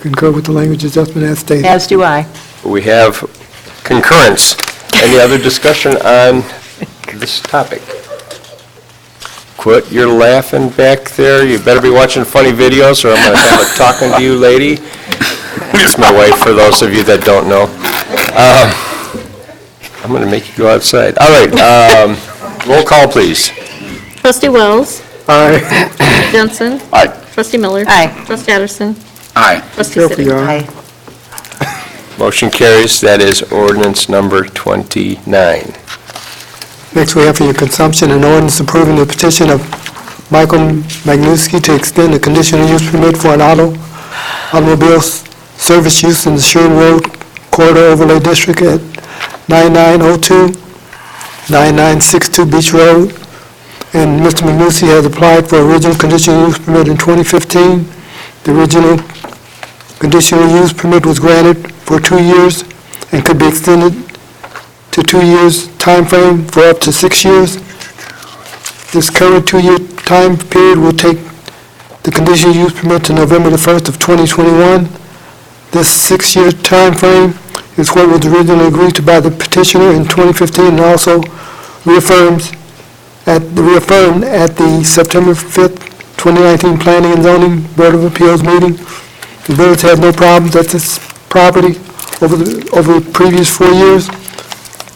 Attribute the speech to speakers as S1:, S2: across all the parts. S1: Concur with the language that's just been as stated.
S2: As do I.
S3: We have concurrence. Any other discussion on this topic? Quit your laughing back there. You better be watching funny videos, or I'm going to have a talking to you lady. It's my wife, for those of you that don't know. Um, I'm going to make you go outside. All right, um, roll call, please.
S4: Trustee Wells.
S1: Aye.
S4: Jensen.
S3: Aye.
S4: Trustee Miller.
S2: Aye.
S4: Trustee Addison.
S3: Aye.
S4: Trustee
S1: Careful,
S4: Sidik.
S1: y'all.
S3: Motion carries. That is ordinance number 29.
S1: Next, we have for your consumption an ordinance approving the petition of Michael Magnuski to extend the conditional use permit for an auto automobile s- service use in the Sherwood Road Corridor Overlay District at 9902, 9962 Beach Road. And Mr. Magnuski has applied for original conditional use permit in 2015. The original conditional use permit was granted for two years and could be extended to two years time frame for up to six years. This current two-year time period will take the conditional use permit to November the 1st of 2021. This six-year time frame is what was originally agreed to by the petitioner in 2015 and also reaffirms at, reaffirmed at the September 5th, 2019 Planning and Zoning Board of Appeals meeting. The village had no problems at this property over the, over the previous four years.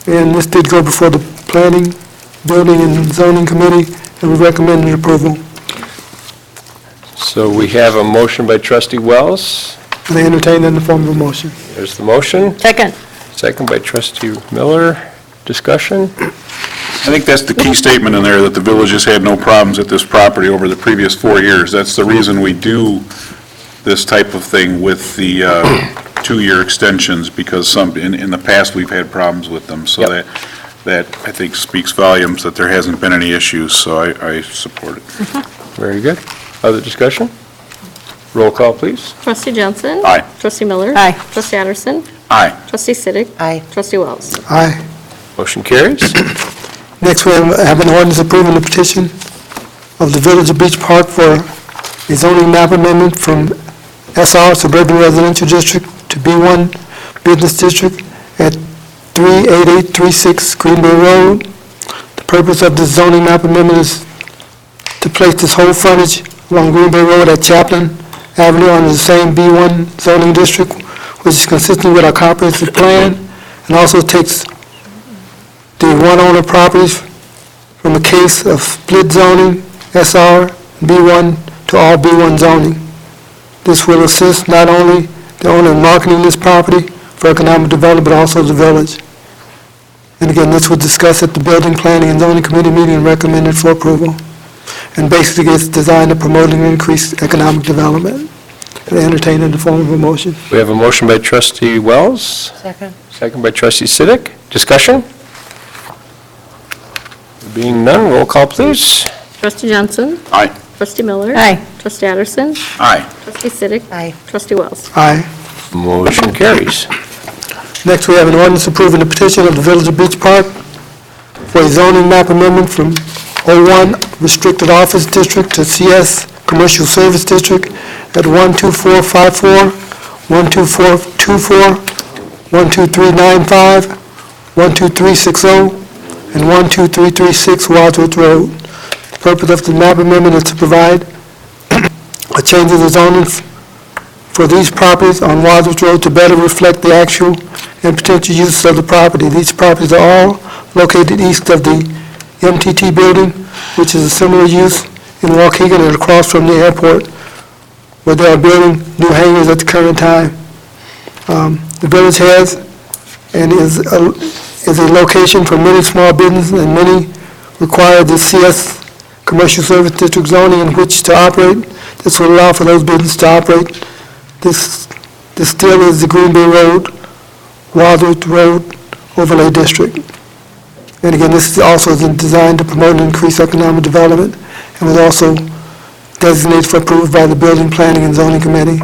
S1: And this did go before the Planning, Building, and Zoning Committee, and we recommended approval.
S3: So we have a motion by trustee Wells.
S1: And I entertain that in the form of a motion.
S3: There's the motion.
S2: Second.
S3: Second by trustee Miller. Discussion?
S5: I think that's the key statement in there, that the village has had no problems at this property over the previous four years. That's the reason we do this type of thing with the uh, two-year extensions, because some, in, in the past, we've had problems with them. So
S3: Yep.
S5: that, that, I think, speaks volumes that there hasn't been any issues, so I, I support it.
S3: Very good. Other discussion? Roll call, please.
S4: Trustee Jensen.
S5: Aye.
S4: Trustee Miller.
S2: Aye.
S4: Trustee Addison.
S5: Aye.
S4: Trustee Sidik.
S2: Aye.
S4: Trustee Wells.
S1: Aye.
S3: Motion carries.
S1: Next, we have have an ordinance approving the petition of the Village of Beach Park for a zoning map amendment from SR Suburban Residential District to B1 Business District at 38836 Green Bay Road. The purpose of this zoning map amendment is to place this whole frontage along Green Bay Road at Chaplin Avenue under the same B1 zoning district, which is consistent with our comprehensive plan, and also takes the one owner properties from a case of split zoning, SR, B1 to all B1 zoning. This will assist not only the owner in marketing this property for economic development, but also the village. And again, this was discussed at the Building Planning and Zoning Committee meeting and recommended for approval. And basically, it's designed to promoting increased economic development and entertained in the form of a motion.
S3: We have a motion by trustee Wells,
S2: Second.
S3: second by trustee Siddick. Discussion? Being none, roll call, please.
S4: Trustee Jensen.
S5: Aye.
S4: Trustee Miller.
S2: Aye.
S4: Trustee Addison.
S5: Aye.
S4: Trustee Sidik.
S2: Aye.
S4: Trustee Wells.
S1: Aye.
S3: Motion carries.
S1: Next, we have an ordinance approving the petition of the Village of Beach Park for a zoning map amendment from O1 Restricted Office District to CS Commercial Service District at 12454, 12424, 12395, 12360, oh, and 12336 Wadsworth Road. The purpose of the map amendment is to provide a change of the zoning for these properties on Wadsworth Road to better reflect the actual and potential uses of the property. These properties are all located east of the MTT building, which is a similar use in Waukegan and across from the airport, where they are building new hangars at the current time. Um, The village has and is a is a location for many small businesses, and many require the CS Commercial Service District zoning in which to operate. This will allow for those businesses to operate this, this still is the Green Bay Road, Wadsworth Road Overlay District. And again, this is also is designed to promote and increase economic development, and was also designated for approval by the Building, Planning, and Zoning Committee,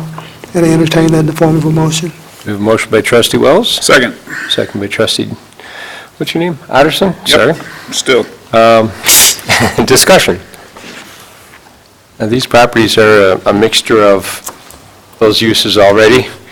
S1: and I entertain that in the form of a motion.
S3: We have a motion by trustee Wells,
S5: Second.
S3: second by trustee, what's your name? Otterson? Sorry.
S5: Yep. Still.
S3: Discussion. Now, these properties are a- a mixture of those uses already.